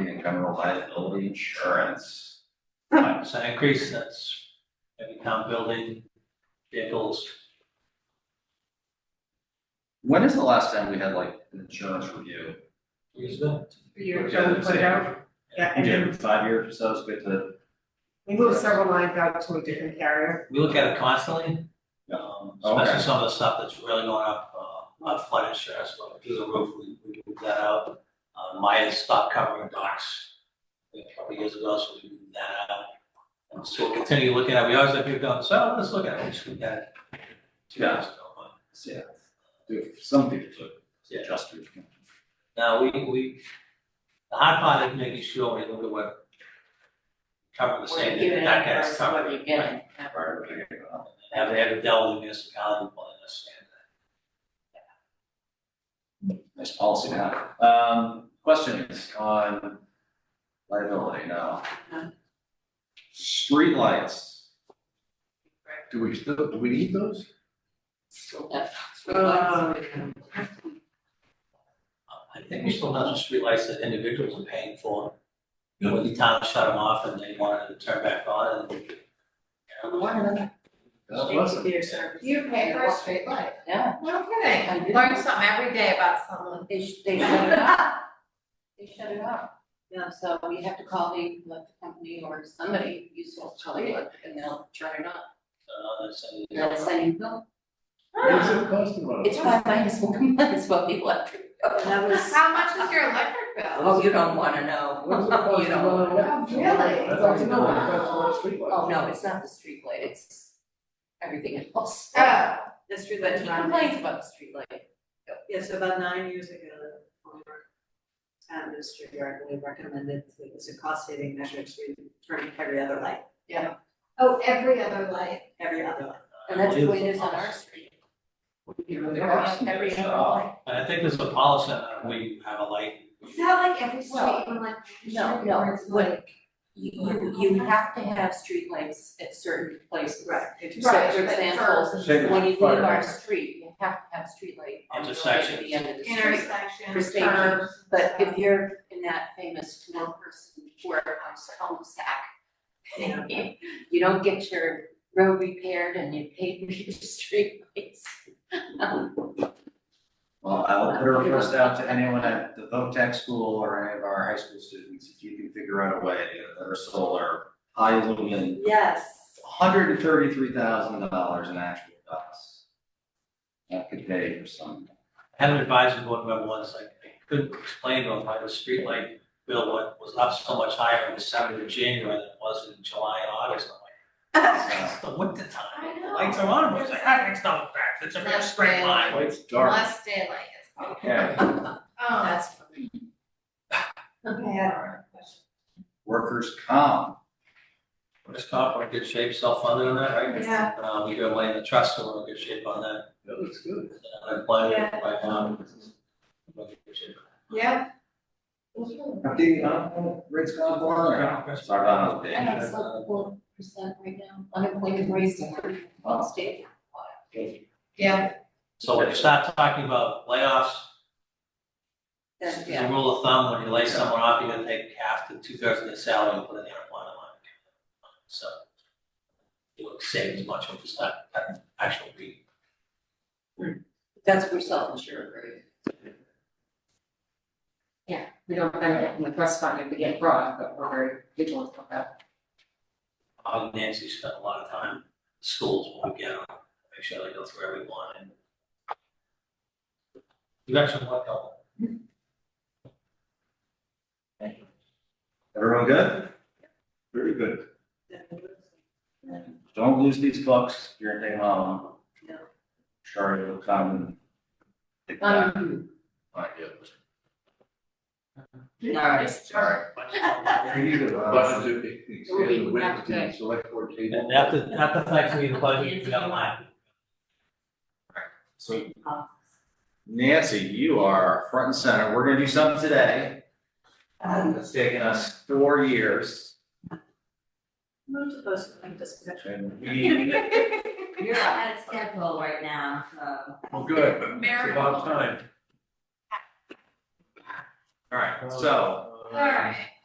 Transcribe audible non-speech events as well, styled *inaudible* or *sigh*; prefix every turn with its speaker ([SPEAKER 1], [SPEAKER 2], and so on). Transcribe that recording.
[SPEAKER 1] and general liability insurance.
[SPEAKER 2] Five percent increase, that's every town building, vehicles,
[SPEAKER 1] When is the last time we had like an insurance review?
[SPEAKER 2] years ago.
[SPEAKER 3] year
[SPEAKER 1] Yeah,
[SPEAKER 3] ago, we
[SPEAKER 1] that's
[SPEAKER 3] put
[SPEAKER 1] it.
[SPEAKER 3] out. Yeah, and then
[SPEAKER 1] five years or so, it's good to.
[SPEAKER 3] we moved several lines out to a different carrier.
[SPEAKER 2] We look at it constantly.
[SPEAKER 1] Yeah. Oh,
[SPEAKER 2] um,
[SPEAKER 1] Okay.
[SPEAKER 2] Especially some of the stuff that's really going up, uh, on flood insurance, but through the roof, we, we moved that out. Uh, Maya stopped covering docks, I think, a couple years ago, so we moved that out. And so we'll continue looking at, it. we always have people going, so let's look at it, we just look at it. Two years ago, but
[SPEAKER 1] Yeah. Do- Some people do.
[SPEAKER 2] Yeah.
[SPEAKER 1] Just. do.
[SPEAKER 2] Now, we, we, the hard part is making sure we look at what cover the same, that that guy's covered.
[SPEAKER 4] What you're getting.
[SPEAKER 1] Or, uh,
[SPEAKER 2] Have they ever dealt with municipality, but I understand
[SPEAKER 1] Nice policy to have. Um, questions on liability now?
[SPEAKER 4] No.
[SPEAKER 1] Streetlights. Do we, still- do we need those?
[SPEAKER 2] that. I think we still have some streetlights that individuals are paying for. When the town shut them off and they wanted to turn back on and.
[SPEAKER 3] You
[SPEAKER 4] pay for a street
[SPEAKER 3] light?
[SPEAKER 4] Yeah,
[SPEAKER 3] No
[SPEAKER 4] I
[SPEAKER 3] kidding,
[SPEAKER 4] do.
[SPEAKER 3] learn something every day about someone.
[SPEAKER 4] they, sh- they shut it off, they shut it off. Yeah, so you have to call the electric company or somebody useful to call the electric and they'll turn it off.
[SPEAKER 2] Uh, so they-
[SPEAKER 4] They'll send you, no,
[SPEAKER 5] What's it costing us?
[SPEAKER 4] it's five minus one, *laughs* that's what the electric. That
[SPEAKER 3] How much is your electric bill?
[SPEAKER 4] *laughs* Oh, you don't wanna know, *laughs*
[SPEAKER 5] What is it costing
[SPEAKER 4] you don't.
[SPEAKER 5] us?
[SPEAKER 3] Really?
[SPEAKER 5] I'd like to know what it costs for a
[SPEAKER 4] Oh,
[SPEAKER 5] streetlight.
[SPEAKER 4] no, it's not the street light. it's everything else.
[SPEAKER 3] Uh, the street
[SPEAKER 4] But he complains about the street light.
[SPEAKER 6] Yes, about nine years ago, the former town administrator, I believe, recommended that it was a cost saving measure to turn every other light,
[SPEAKER 3] Oh, every other light.
[SPEAKER 6] every other light.
[SPEAKER 4] And that's the way it is on our street.
[SPEAKER 1] There are some
[SPEAKER 4] Every
[SPEAKER 1] good
[SPEAKER 4] other
[SPEAKER 1] stuff.
[SPEAKER 4] light.
[SPEAKER 2] And I think there's a policy that we have a light.
[SPEAKER 3] Is that like every street
[SPEAKER 4] Well,
[SPEAKER 3] in like?
[SPEAKER 4] No, no, when, you, you, you have to have streetlights at certain places.
[SPEAKER 6] It
[SPEAKER 4] So
[SPEAKER 6] just-
[SPEAKER 3] Right,
[SPEAKER 4] for
[SPEAKER 3] but
[SPEAKER 4] example,
[SPEAKER 1] Say
[SPEAKER 4] when you leave
[SPEAKER 1] fire
[SPEAKER 4] our
[SPEAKER 1] hydrant.
[SPEAKER 4] street, you have to have streetlight on the road
[SPEAKER 2] Intersections.
[SPEAKER 4] at the end of the street.
[SPEAKER 3] Intersection,
[SPEAKER 4] For safety.
[SPEAKER 3] curves.
[SPEAKER 4] But if you're in that famous one person work on home sack, *laughs* you don't get your road repaired and you pay for your *laughs* streetlights.
[SPEAKER 1] Well, I will put a request out to anyone at the Voc Tech school or any of our high school students, if you can figure out a way that are solar, high lumen,
[SPEAKER 6] Yes,
[SPEAKER 1] hundred and thirty-three thousand dollars in actual costs. That could pay for some.
[SPEAKER 2] I had an advisory board member once, like, I couldn't explain to him why the streetlight bill wa- was up so much higher in December and January than it was in July and August. I'm like, it's the
[SPEAKER 3] I
[SPEAKER 2] winter time,
[SPEAKER 3] know.
[SPEAKER 2] lights are on, it's like, that makes no fact, it's a real straight line.
[SPEAKER 1] It's
[SPEAKER 3] Less daylight is.
[SPEAKER 1] Okay.
[SPEAKER 3] Oh,
[SPEAKER 4] That's funny.
[SPEAKER 3] okay.
[SPEAKER 1] Workers' comp.
[SPEAKER 2] Workers' comp, we're in good shape, self-funded on that, right?
[SPEAKER 3] Yeah.
[SPEAKER 2] Uh, we do have money in the trust, so we're in good shape on that,
[SPEAKER 5] That looks good.
[SPEAKER 2] unemployment right now. we're in good shape.
[SPEAKER 3] Yeah.
[SPEAKER 1] Update on uh, rates gone down or? Sorry about
[SPEAKER 4] I
[SPEAKER 1] that.
[SPEAKER 4] know, it's like four percent right now, unemployment rates in the state.
[SPEAKER 3] Yeah.
[SPEAKER 2] So when you start talking about layoffs,
[SPEAKER 4] Then,
[SPEAKER 2] as a rule of thumb, when you lay someone off, you're gonna take half to two thirds of their salary and put in the unemployment line. So you won't save as much, which is not, not actual beat.
[SPEAKER 4] That's for self-insured, right?
[SPEAKER 7] we don't benefit from the trust fund if we get broad, but we're very vigilant about that.
[SPEAKER 2] Um, Nancy spent a lot of time, in schools, when we get them, make sure they go through every one and. You actually worked on
[SPEAKER 1] Everyone good?
[SPEAKER 5] Very good.
[SPEAKER 1] Don't lose these books during day long.
[SPEAKER 6] No.
[SPEAKER 1] Sure, it'll come. and-
[SPEAKER 7] Um,
[SPEAKER 1] Might do.
[SPEAKER 7] alright,
[SPEAKER 5] Budget to
[SPEAKER 7] It will
[SPEAKER 5] expand
[SPEAKER 7] be
[SPEAKER 5] the width
[SPEAKER 7] after
[SPEAKER 5] of the select board table.
[SPEAKER 2] And after, after Thanksgiving, the budget, we got a line.
[SPEAKER 1] So
[SPEAKER 7] Um,
[SPEAKER 1] Nancy, you are front and center. We're gonna do something today. It's taken us four years
[SPEAKER 6] move to postpone discussion.
[SPEAKER 1] and we.
[SPEAKER 8] You're ahead of schedule right now, so.
[SPEAKER 5] Well, good. It's
[SPEAKER 3] Mary.
[SPEAKER 5] about time.
[SPEAKER 1] All right, so
[SPEAKER 3] All right.